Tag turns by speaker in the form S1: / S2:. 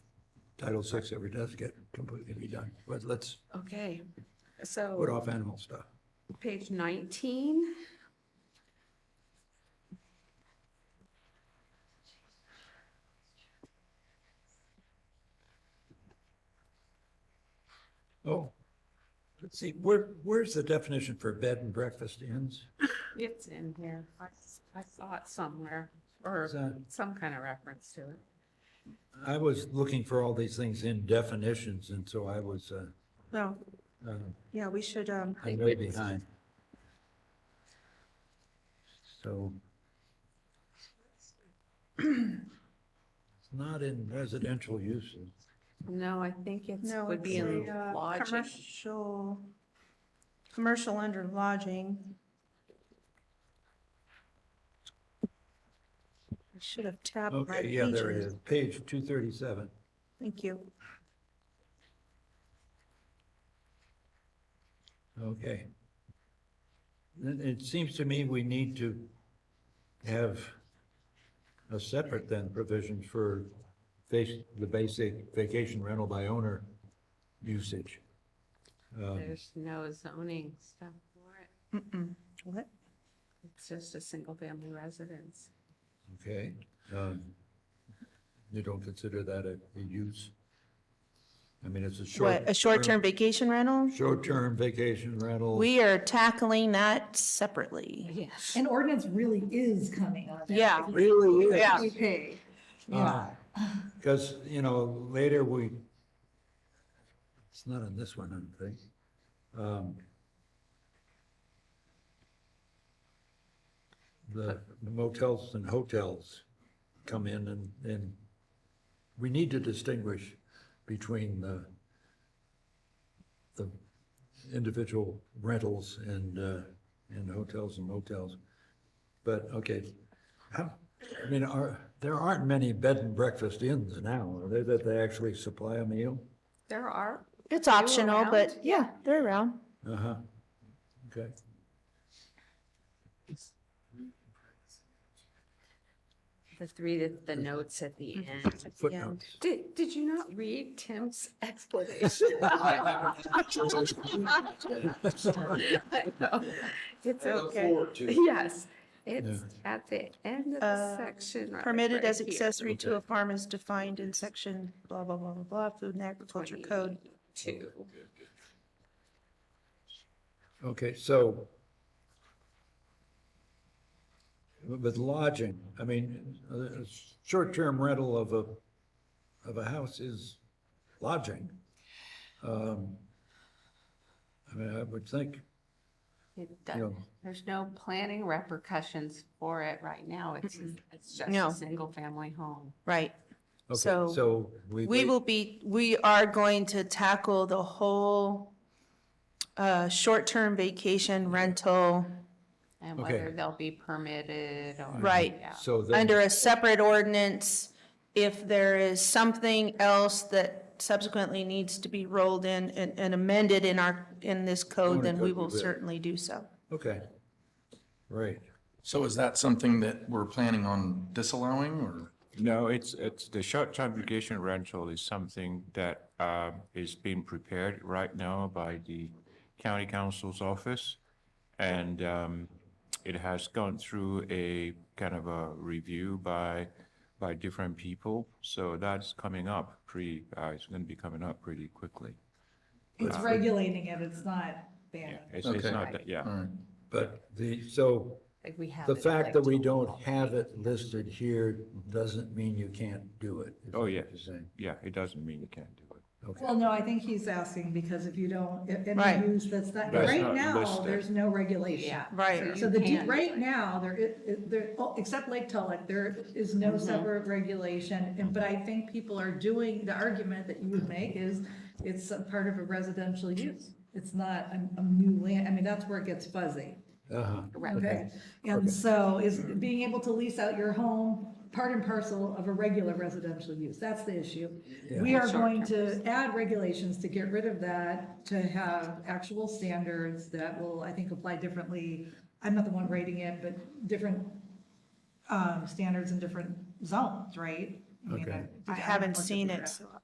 S1: Title VI ever does get completely redone. But let's
S2: Okay,
S1: put
S2: so
S1: off animal stuff.
S2: page 19.
S1: Oh, let's see, where, where's the definition for bed and breakfast inns?
S2: It's in here. I s- I saw it somewhere or
S1: Is that-
S2: some kind of reference to it.
S1: I was looking for all these things in definitions, and so I was, uh,
S2: No,
S1: uh,
S2: yeah, we should, um.
S1: I'm way behind. So. It's not in residential uses.
S2: No, I think it's,
S3: No,
S2: would be
S3: it's
S2: in
S3: a, uh,
S2: lodging.
S3: Commercial, commercial under lodging. I should have tabbed my
S1: Okay, yeah, there it
S3: pages.
S1: is, page two thirty-seven.
S3: Thank you.
S1: Okay. Then It seems to me we need to have a separate then provision for face, the basic vacation rental by owner usage. Um,
S2: There's no zoning stuff for it.
S3: Mm-mm. What?
S2: It's just a single family residence.
S1: Okay, um, you don't consider that a, a use? I mean, it's a short.
S3: What, a short-term vacation rental?
S1: Short-term vacation rental.
S3: We are tackling that separately.
S2: Yes.
S4: An ordinance really is coming on that.
S3: Yeah.
S1: Really is.
S3: Yeah.
S4: We pay.
S1: Yeah.
S5: Ah,
S1: Because, Uh, you know, later we, it's not on this one, I don't think. Um, The motels and hotels come in and, and we need to distinguish between the, the individual rentals and, uh, and hotels and motels. But, okay, how, I mean, are, there aren't many bed and breakfast inns now, are there, that they actually supply a meal?
S2: There are,
S3: It's optional, but
S2: around?
S3: yeah, they're around.
S1: Uh-huh, okay.
S2: the three, that- the notes at the end.
S1: Footnotes.
S2: Did, did you not read Tim's explanation? I know. It's okay. Yes, it's at the end of the
S3: Uh,
S2: section. right-
S3: Permitted
S2: right
S3: as
S2: here.
S3: accessory to a farm is defined in section blah, blah, blah, blah, blah, Food and Agriculture Code.
S2: 22.
S1: Okay, so with lodging, I mean, a a short-term rental of a, of a house is lodging. Um, I mean, I would think,
S2: It
S1: you know,
S2: does- There's no planning repercussions for it right now. It's, it's just
S3: No.
S2: a single family home.
S3: Right.
S1: okay,
S3: So,
S1: so we.
S3: We will be, we are going to tackle the whole uh, short-term vacation rental,
S2: And
S1: Okay.
S2: whether they'll be permitted or.
S3: Right.
S2: yeah.
S1: So then.
S3: under a separate ordinance. If there is something else that subsequently needs to be rolled in and and amended in our, in this code, then we will certainly do so.
S1: Okay, right.
S6: So is that something that we're planning on disallowing or?
S5: No, it's, it's, the short-term vacation rental is something that uh, is being prepared right now by the county council's office. And um, it has gone through a kind of a review by, by different people. So that's coming up pretty, uh, it's going to be coming up pretty quickly.
S4: It's regulating it, it's not
S5: Yeah,
S4: banning.
S5: It's, it's
S6: Okay.
S5: not, that- yeah.
S6: All right.
S1: But the, so
S2: Like we have.
S1: the
S2: it,
S1: fact
S2: like,
S1: that we
S2: to-
S1: don't have it listed here doesn't mean you can't do it. is
S5: Oh,
S1: what
S5: yeah.
S1: you're saying.
S5: Yeah, it doesn't mean you can't do it.
S1: Okay,
S4: Well, no, I think he's asking because if you don't, if
S3: Right.
S4: any use that's not,
S5: That's
S4: right
S5: not
S4: now,
S5: listed.
S4: there's no regulation.
S2: Yeah.
S3: Right.
S4: So the,
S2: You
S4: de-
S2: can.
S4: right now, there, i- i- there, oh, except Lake Tulloch, there is no separate regulation. And, but I think people are doing, the argument that you would make is it's a part of a residential use. It's not a, a new land, I mean, that's where it gets fuzzy.
S1: uh-huh,
S4: Okay, and so is being able to lease out your home part and parcel of a regular residential use, that's the issue. We are going to add regulations to get rid of that, to have actual standards that will, I think, apply differently. I'm not the one writing it, but different, um, standards in different zones, right? I mean,
S1: Okay.
S3: I haven't seen it, so